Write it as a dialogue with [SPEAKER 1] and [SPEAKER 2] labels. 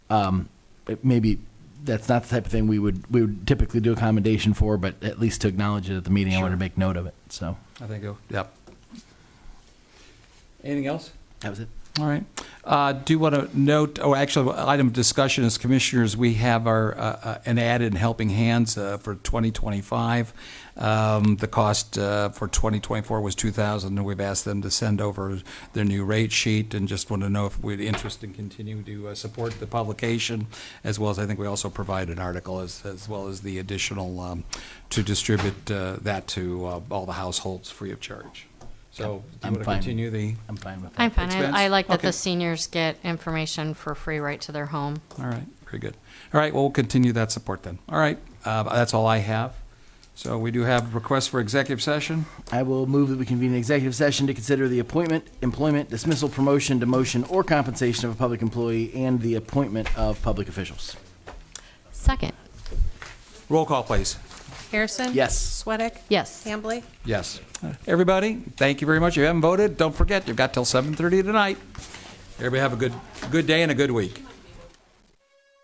[SPEAKER 1] um, it- maybe that's not the type of thing we would, we would typically do accommodation for, but at least to acknowledge it at the meeting, I want to
[SPEAKER 2] Sure.
[SPEAKER 1] make note of it, so.
[SPEAKER 2] I think, it'll- yep. Anything else?
[SPEAKER 1] That was it.
[SPEAKER 2] All right. Uh, Do want to note, oh, actually, item of discussion is commissioners, we have our, uh, uh, an ad in Helping Hands uh, for 2025. Um, The cost uh, for 2024 was 2,000, and we've asked them to send over their new rate sheet, and just want to know if we'd interest in continuing to uh, support the publication, as well as, I think we also provide an article, as, as well as the additional, um, to distribute uh, that to uh, all the households free of charge. So, do
[SPEAKER 1] I'm
[SPEAKER 2] you want to
[SPEAKER 1] fine.
[SPEAKER 2] continue the?
[SPEAKER 1] I'm fine with that.
[SPEAKER 3] I'm fine.
[SPEAKER 2] Expense?
[SPEAKER 3] I, I like that
[SPEAKER 2] Okay.
[SPEAKER 3] the seniors get information for free right to their home.
[SPEAKER 2] All right, very good. All right, well, we'll continue that support then. All right, uh, that's all I have. So we do have requests for executive session.
[SPEAKER 1] I will move that we convene an executive session to consider the appointment, employment, dismissal, promotion, demotion, or compensation of a public employee and the appointment of public officials.
[SPEAKER 3] Second,
[SPEAKER 2] Roll call, please.
[SPEAKER 4] Harrison?
[SPEAKER 1] Yes.
[SPEAKER 4] Sweattick?
[SPEAKER 3] yes.
[SPEAKER 4] Hambley?
[SPEAKER 2] Yes. Everybody, thank you very much. If you haven't voted, don't forget, you've got till 7:30 tonight. Everybody have a good, good day and a good week.